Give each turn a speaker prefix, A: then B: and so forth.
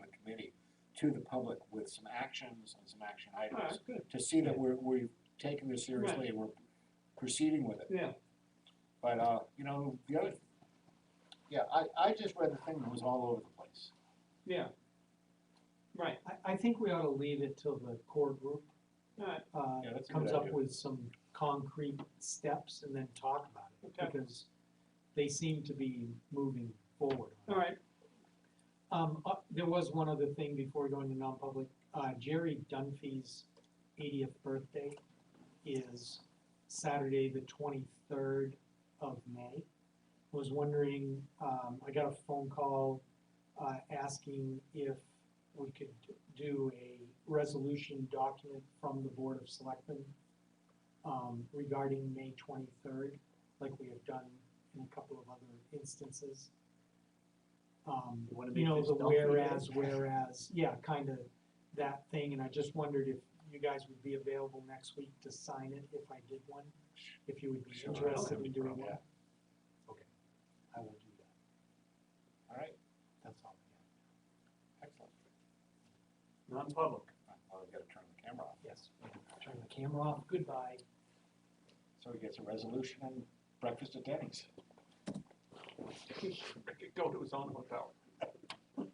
A: to the public with some actions and some action
B: All right,
A: items
B: good,
A: to see that we're, we're taking this seriously and we're proceeding with it.
B: yeah,
A: But, uh, you know, the other, yeah, I, I just read the thing that was all over the place.
B: yeah, right,
C: I, I think we ought to leave it till the core group,
B: all right,
C: uh,
A: Yeah, that's a good
C: comes up
A: idea.
C: with some concrete steps and then talk about it.
B: Okay.
C: Because they seem to be moving forward.
B: all right,
C: Um, uh, there was one other thing before going to non-public, uh, Jerry Dunphy's eightieth birthday is Saturday, the twenty-third of May. Was wondering, um, I got a phone call, uh, asking if we could do a resolution document from the Board of Selectmen um, regarding May twenty-third, like we have done in a couple of other instances. Um,
D: You wanna
C: you
D: make
C: know,
D: this
C: the
D: Dunphy Day?
C: whereas, whereas, yeah, kind of that thing, and I just wondered if you guys would be available next week to sign it if I did one, if you would be
A: Sure, I don't
C: interested
A: have
C: in
A: any
C: doing
A: problem.
C: one. Okay, I will do that,
A: All right,
C: that's all I
A: excellent.
D: non-public.
A: Well, I've got to turn the camera off.
C: have, yes. Turn the camera off, goodbye.
A: So he gets a resolution and breakfast at Denny's.
D: Go to his own hotel.